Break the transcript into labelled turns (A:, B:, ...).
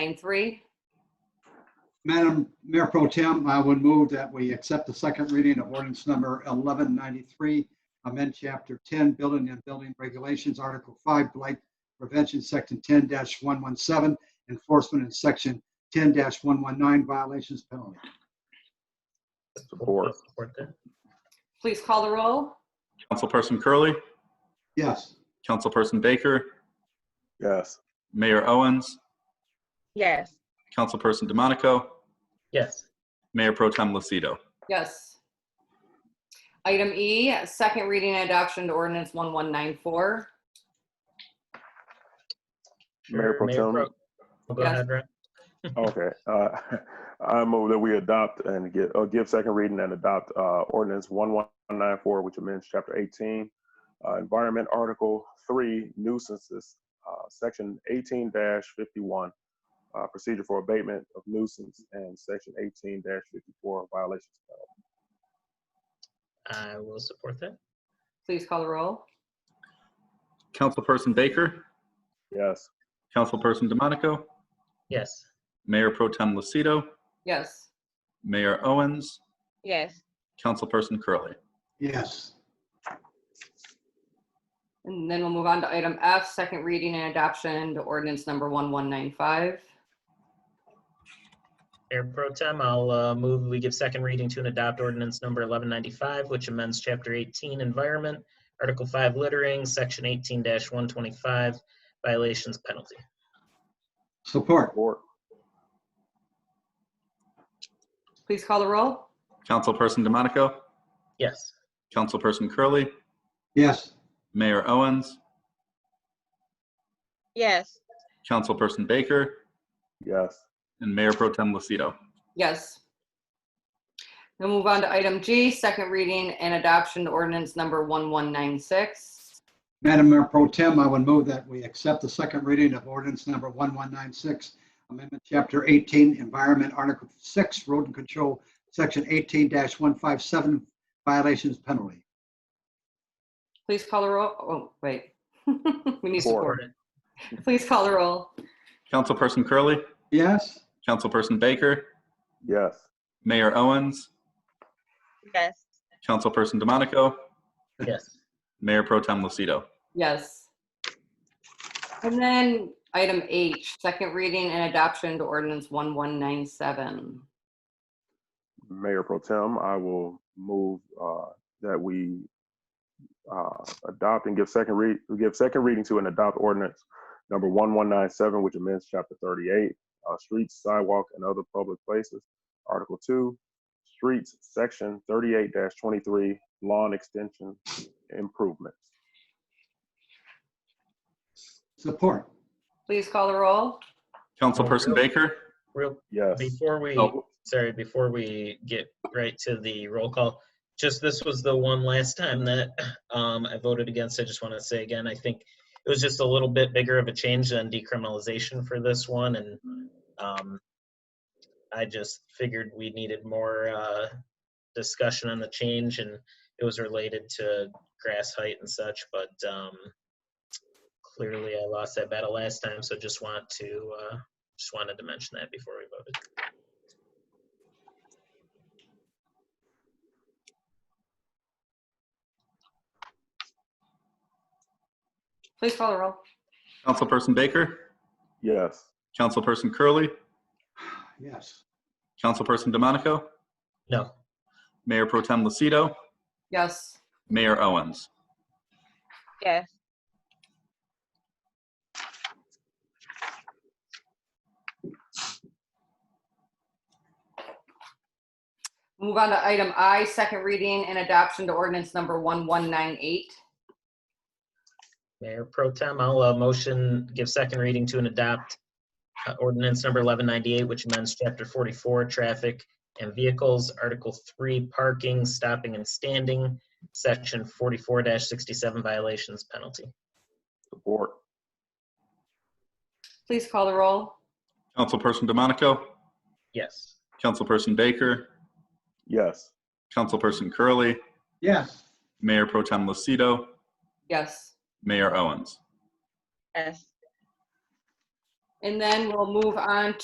A: Line three.
B: Madam Mayor Pro Tem, I would move that we accept the second reading of ordinance number 1193, amend Chapter 10, Building and Building Regulations, Article 5, Blight Prevention, Section 10-117, Enforcement, and Section 10-119, Violations Penalty.
C: Support.
D: Support that.
A: Please call the roll.
E: Councilperson Curley,
B: Yes.
E: Councilperson Baker,
C: Yes.
E: Mayor Owens,
F: yes,
E: Councilperson DeMonico,
D: Yes,
E: Mayor Pro Tem Lucido.
A: Yes. Item E, second reading and adoption to ordinance 1194.
C: Mayor Pro Tem.
D: Pro- Go ahead, Ryan.
C: Okay. uh, I move that we adopt and get, uh, give second reading and adopt uh, ordinance 1194, which amends Chapter 18, uh, Environment Article 3 nuisances, uh, Section 18-51, uh, Procedure for Abatement of Nuisance, and Section 18-54, Violations.
D: I will support that.
A: Please call the roll.
E: Councilperson Baker,
C: Yes.
E: Councilperson DeMonico,
D: Yes,
E: Mayor Pro Tem Lucido,
A: Yes.
E: Mayor Owens,
F: yes,
E: Councilperson Curley.
B: Yes.
A: And then we'll move on to item F, second reading and adoption to ordinance number 1195.
D: Mayor Pro Tem, I'll uh, move we give second reading to and adopt ordinance number 1195, which amends Chapter 18 Environment, Article 5 Littering, Section 18-125, Violations Penalty.
B: Support.
C: Support.
A: Please call the roll.
E: Councilperson DeMonico,
D: Yes,
E: Councilperson Curley,
B: Yes.
E: Mayor Owens,
F: yes,
E: Councilperson Baker,
C: Yes.
E: and Mayor Pro Tem Lucido.
A: Yes. We'll move on to item G, second reading and adoption to ordinance number 1196.
B: Madam Mayor Pro Tem, I would move that we accept the second reading of ordinance number 1196, Amendment Chapter 18, Environment, Article 6, Road and Control, Section 18-157, Violations Penalty.
A: Please call the roll. Oh, wait. We need
C: Four.
A: support.
D: support it.
A: Please call the roll.
E: Councilperson Curley,
B: Yes?
E: Councilperson Baker,
C: Yes.
E: Mayor Owens,
F: yes,
E: Councilperson DeMonico,
D: Yes,
E: Mayor Pro Tem Lucido.
A: Yes. And then item H, second reading and adoption to ordinance 1197.
C: Mayor Pro Tem, I will move uh, that we uh, adopt and give second read, give second reading to and adopt ordinance number 1197, which amends Chapter 38, uh, Streets, Sidewalk, and Other Public Places, Article 2, Streets, Section 38-23, Lawn Extension Improvements.
B: Support.
A: Please call the roll.
E: Councilperson Baker,
D: real,
C: Yes.
D: before we,
E: Oh.
D: sorry, before we get right to the roll call, just this was the one last time that um, I voted against. I just want to say again, I think it was just a little bit bigger of a change than decriminalization for this one, and um, I just figured we needed more uh, discussion on the change, and it was related to grass height and such, but um, clearly I lost that battle last time, so just want to, uh, just wanted to mention that before we voted.
A: Please call the roll.
E: Councilperson Baker,
C: Yes.
E: Councilperson Curley,
B: Yes.
E: Councilperson DeMonico,
D: No,
E: Mayor Pro Tem Lucido,
A: Yes.
E: Mayor Owens.
F: yes,
A: Move on to item I, second reading and adoption to ordinance number 1198.
D: Mayor Pro Tem, I'll uh, motion, give second reading to and adopt uh, ordinance number 1198, which amends Chapter 44, Traffic and Vehicles, Article 3, Parking, Stopping and Standing, Section 44-67 Violations Penalty.
C: Support.
A: Please call the roll.
E: Councilperson DeMonico,
D: Yes.
E: Councilperson Baker,
C: Yes.
E: Councilperson Curley,
B: Yes.
E: Mayor Pro Tem Lucido,
A: Yes.
E: Mayor Owens.
F: yes,
A: And then we'll move on